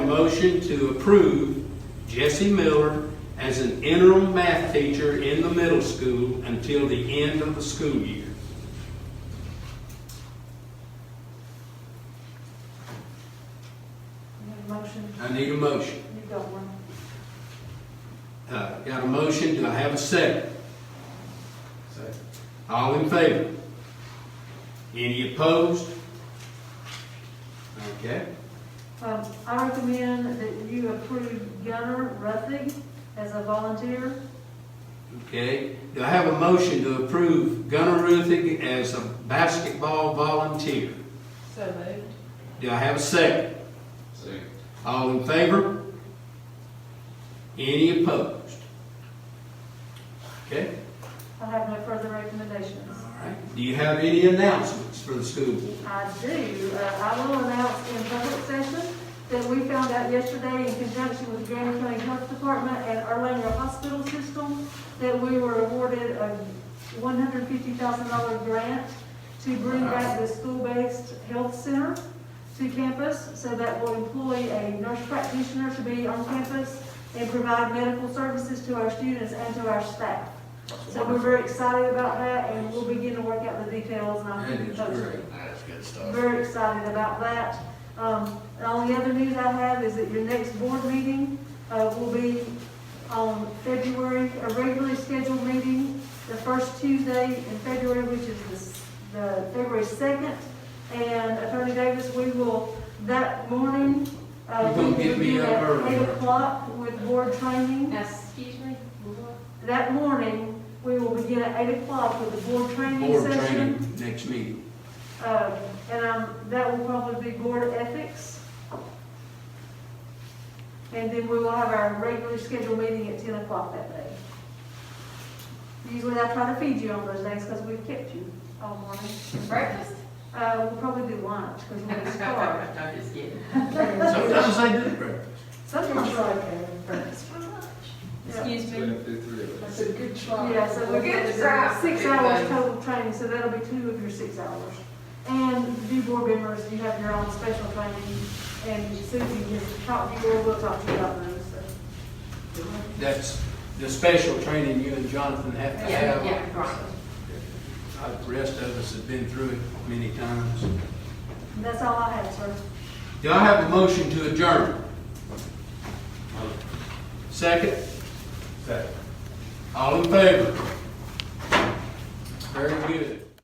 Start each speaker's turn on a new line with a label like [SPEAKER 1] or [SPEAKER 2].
[SPEAKER 1] motion to approve Jesse Miller as an interim math teacher in the middle school until the end of the school year.
[SPEAKER 2] Need a motion?
[SPEAKER 1] I need a motion.
[SPEAKER 2] You got one?
[SPEAKER 1] Uh, Got a motion, do I have a second? Second. All in favor? Any opposed? Okay.
[SPEAKER 2] Um, I recommend that you approve Gunnar Ruthig as a volunteer.
[SPEAKER 1] Okay, do I have a motion to approve Gunnar Ruthig as a basketball volunteer?
[SPEAKER 2] So moved.
[SPEAKER 1] Do I have a second?
[SPEAKER 3] Second.
[SPEAKER 1] All in favor? Any opposed? Okay,
[SPEAKER 2] I have no further recommendations.
[SPEAKER 1] all right. Do you have any announcements for the school board?
[SPEAKER 2] I do, uh, I will announce in public session that we found out yesterday in conjunction with Grand County Health Department and Erlanger Hospital System that we were awarded a one hundred fifty thousand dollar grant to bring back the school-based health center to campus. So that will employ a nurse practitioner to be on campus and provide medical services to our students and to our staff. So we're very excited about that and we'll begin to work out the details and I'll
[SPEAKER 1] That
[SPEAKER 2] keep you
[SPEAKER 1] is
[SPEAKER 2] posted.
[SPEAKER 1] great.
[SPEAKER 3] That's good stuff.
[SPEAKER 2] Very excited about that. Um, and all the other news I have is that your next board meeting, uh, will be on February, a regularly scheduled meeting, the first Tuesday in February, which is the, s- the February second. And Attorney Davis, we will, that morning, uh,
[SPEAKER 1] You
[SPEAKER 2] we
[SPEAKER 1] gonna
[SPEAKER 2] will
[SPEAKER 1] get me
[SPEAKER 2] be
[SPEAKER 1] up
[SPEAKER 2] at
[SPEAKER 1] early.
[SPEAKER 2] eight o'clock with board training.
[SPEAKER 4] Now, excuse me, what?
[SPEAKER 2] That morning, we will begin at eight o'clock with the board training
[SPEAKER 1] Board
[SPEAKER 2] session.
[SPEAKER 1] training next meeting.
[SPEAKER 2] Uh, And um, that will probably be board ethics. And then we will have our regularly scheduled meeting at 10 o'clock that day. Usually I try to feed you on those days because we've kept you all morning.
[SPEAKER 4] breakfast?
[SPEAKER 2] Uh, We'll probably do lunch because we're starved.
[SPEAKER 4] I'm just kidding.
[SPEAKER 1] Sometimes I do breakfast.
[SPEAKER 2] Sometimes I
[SPEAKER 4] Breakfast for lunch?
[SPEAKER 2] Yeah.
[SPEAKER 4] Excuse me?
[SPEAKER 5] That's a good try.
[SPEAKER 2] Yeah, so we're
[SPEAKER 4] Good
[SPEAKER 2] good
[SPEAKER 4] try.
[SPEAKER 2] six
[SPEAKER 4] Good
[SPEAKER 2] hours
[SPEAKER 4] one.
[SPEAKER 2] total training, so that'll be two of your six hours. And you board members, you have your own special training, and Susie has talked to you, we'll talk to you about those, so.
[SPEAKER 1] That's the special training you and Jonathan have to
[SPEAKER 4] Yeah,
[SPEAKER 1] have.
[SPEAKER 4] yeah, right.
[SPEAKER 1] Uh, The rest of us have been through it many times.
[SPEAKER 2] And that's all I have, sir.
[SPEAKER 1] Do I have a motion to adjourn? Second? Second. All in favor? Very good.